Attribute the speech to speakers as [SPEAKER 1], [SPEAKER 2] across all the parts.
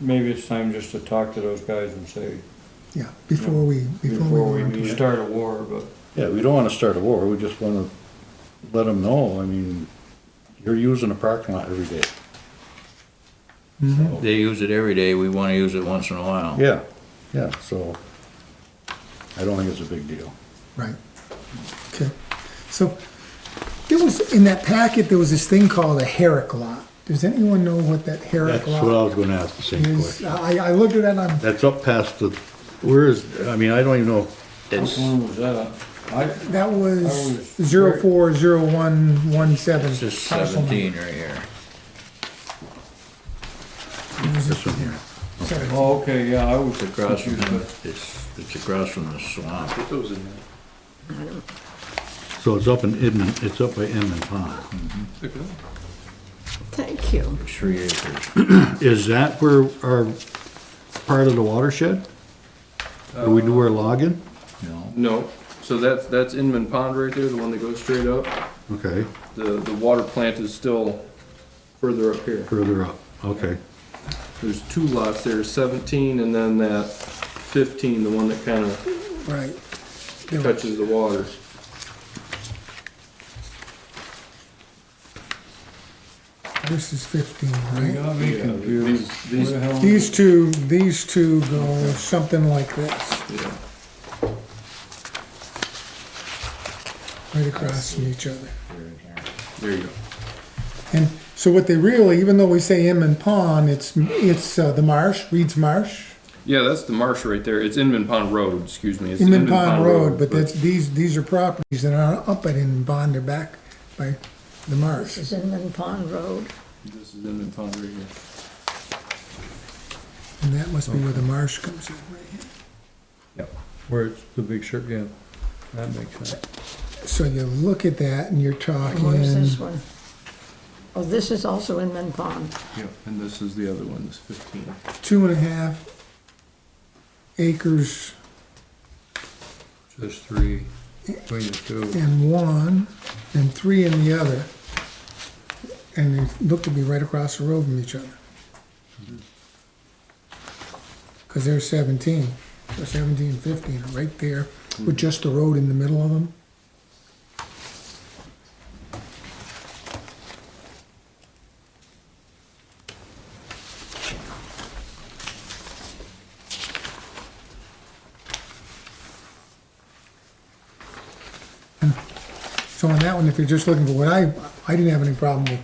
[SPEAKER 1] Maybe it's time just to talk to those guys and say,
[SPEAKER 2] Yeah, before we, before we
[SPEAKER 1] before
[SPEAKER 2] go into,
[SPEAKER 1] we start a war, but
[SPEAKER 3] Yeah, we don't wanna start a war, we just wanna let them know, I mean, you're using a parking lot every day.
[SPEAKER 4] They use it every day, we wanna use it once in a while.
[SPEAKER 3] Yeah, yeah, so I don't think it's a big deal.
[SPEAKER 2] right. Okay, so there was, in that packet, there was this thing called a Herrick lot. Does anyone know what that Herrick
[SPEAKER 3] That's what I
[SPEAKER 2] lot
[SPEAKER 3] was gonna ask the same
[SPEAKER 2] is?
[SPEAKER 3] question.
[SPEAKER 2] I, I looked at that and I'm,
[SPEAKER 3] That's up past the, where is, I mean, I don't even know.
[SPEAKER 1] which
[SPEAKER 4] It's,
[SPEAKER 1] one was that? I,
[SPEAKER 2] that was
[SPEAKER 1] was
[SPEAKER 2] zero four zero one one seven.
[SPEAKER 4] it's just seventeen right here.
[SPEAKER 3] This one here.
[SPEAKER 1] oh, okay, yeah, I was
[SPEAKER 4] It's across from,
[SPEAKER 1] confused, but
[SPEAKER 4] the- it's, it's across from the swamp.
[SPEAKER 3] So it's up in Edmond, it's up by Edmond Pond.
[SPEAKER 5] Thank you.
[SPEAKER 4] It's three acres.
[SPEAKER 3] Is that where our, part of the watershed? Or we do our logging?
[SPEAKER 4] No,
[SPEAKER 6] No, so that's, that's Inman Pond right there, the one that goes straight up.
[SPEAKER 3] Okay,
[SPEAKER 6] The, the water plant is still further up here.
[SPEAKER 3] further up, okay.
[SPEAKER 6] There's two lots there, seventeen and then that fifteen, the one that kind of
[SPEAKER 2] Right. There was-
[SPEAKER 6] touches the water.
[SPEAKER 2] This is fifteen,
[SPEAKER 1] you
[SPEAKER 2] right?
[SPEAKER 1] got me
[SPEAKER 6] Yeah,
[SPEAKER 1] confused.
[SPEAKER 6] these-
[SPEAKER 1] Where
[SPEAKER 6] these-
[SPEAKER 1] the hell-
[SPEAKER 2] These two, these two go something like this,
[SPEAKER 6] Yeah.
[SPEAKER 2] right across from each other.
[SPEAKER 6] There you go.
[SPEAKER 2] And so what they really, even though we say Inman Pond, it's, it's uh, the marsh, Reed's Marsh,
[SPEAKER 6] Yeah, that's the marsh right there. It's Inman Pond Road, excuse me. It's
[SPEAKER 2] Inman Pond Road, but that's, these, these are properties that are up at Inman Pond, they're back by the marsh.
[SPEAKER 5] It's in Lynn Pond Road.
[SPEAKER 6] This is Inman Pond right here.
[SPEAKER 2] And that must be where the marsh comes in, right here.
[SPEAKER 1] Where it's the big shirt, yeah, that makes sense.
[SPEAKER 2] So you look at that and you're talking,
[SPEAKER 5] And where's this one? Oh, this is also in Lynn Pond.
[SPEAKER 6] Yeah, and this is the other one, this fifteen.
[SPEAKER 2] two and a half acres
[SPEAKER 1] Just three, between the two.
[SPEAKER 2] in one and three in the other. And they look to be right across the road from each other.
[SPEAKER 1] Mm-hmm.
[SPEAKER 2] Cause they're seventeen, so seventeen, fifteen, right there,
[SPEAKER 1] Mm-hmm.
[SPEAKER 2] with just the road in the middle of them. So on that one, if you're just looking for what I, I didn't have any problem with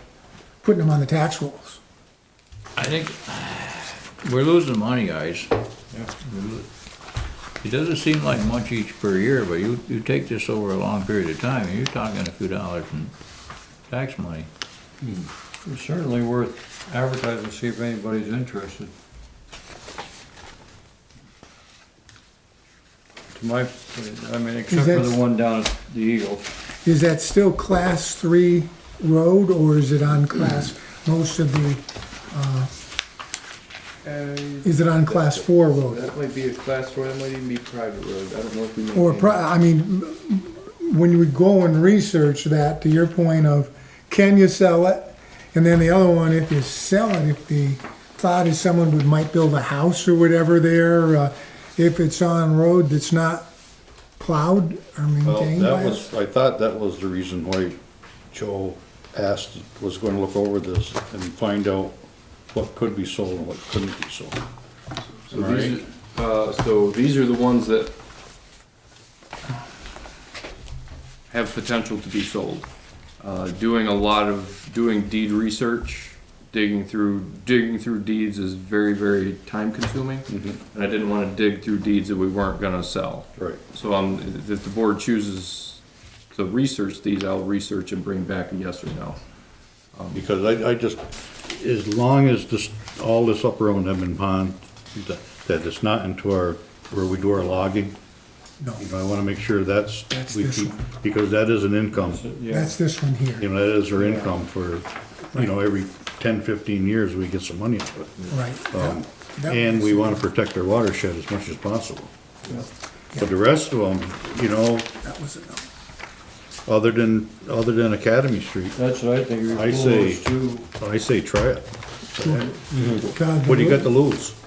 [SPEAKER 2] putting them on the tax rolls.
[SPEAKER 4] I think, we're losing money, guys. We're lo- It doesn't seem like much each per year, but you, you take this over a long period of time, and you're talking a few dollars in tax money.
[SPEAKER 1] It's certainly worth advertising, see if anybody's interested. To my, I mean, except for the
[SPEAKER 2] that-
[SPEAKER 1] one down at the Eagle.
[SPEAKER 2] Is that still class three road or is it on class, most of the, uh,
[SPEAKER 6] That
[SPEAKER 2] is it on class four road?
[SPEAKER 6] might be a class four, that might even be private road. I don't know if we.
[SPEAKER 2] Or, pro- I mean, when you would go and research that, to your point of, can you sell it? And then the other one, if you sell it, if the thought is someone would, might build a house or whatever there, uh, if it's on road that's not plowed or
[SPEAKER 3] Well,
[SPEAKER 2] maintained by
[SPEAKER 3] that
[SPEAKER 2] us.
[SPEAKER 3] was, I thought that was the reason why Joe asked, was gonna look over this and find out what could be sold and what couldn't be sold.
[SPEAKER 6] So these, are- uh, so these are the ones that have potential to be sold. Uh, doing a lot of, doing deed research, digging through, digging through deeds is very, very time consuming. And I didn't wanna dig through deeds that we weren't gonna sell.
[SPEAKER 3] Right.
[SPEAKER 6] So um, if the board chooses to research these, I'll research and bring back a yes or no.
[SPEAKER 3] Because I, I just, as long as this, all this up around Edmond Pond, that, that it's not into our, where we do our logging,
[SPEAKER 2] No,
[SPEAKER 3] you know, I wanna make sure that's,
[SPEAKER 2] That's
[SPEAKER 3] we
[SPEAKER 2] this
[SPEAKER 3] keep,
[SPEAKER 2] one.
[SPEAKER 3] because that is an income.
[SPEAKER 1] Yeah,
[SPEAKER 2] that's this one here,
[SPEAKER 3] You know, that is our income for, you know, every ten, fifteen years, we get some money out of it.
[SPEAKER 2] right.
[SPEAKER 3] Um,
[SPEAKER 2] That- that
[SPEAKER 3] And
[SPEAKER 2] was-
[SPEAKER 3] we want to protect our watershed as much as possible.
[SPEAKER 2] Yeah.
[SPEAKER 3] But the rest of them, you know,
[SPEAKER 2] That was a no.
[SPEAKER 3] other than, other than Academy Street,
[SPEAKER 1] that's what I think.
[SPEAKER 3] I say-
[SPEAKER 1] Those two,
[SPEAKER 3] I say try it.
[SPEAKER 2] God,
[SPEAKER 3] What do you got to lose?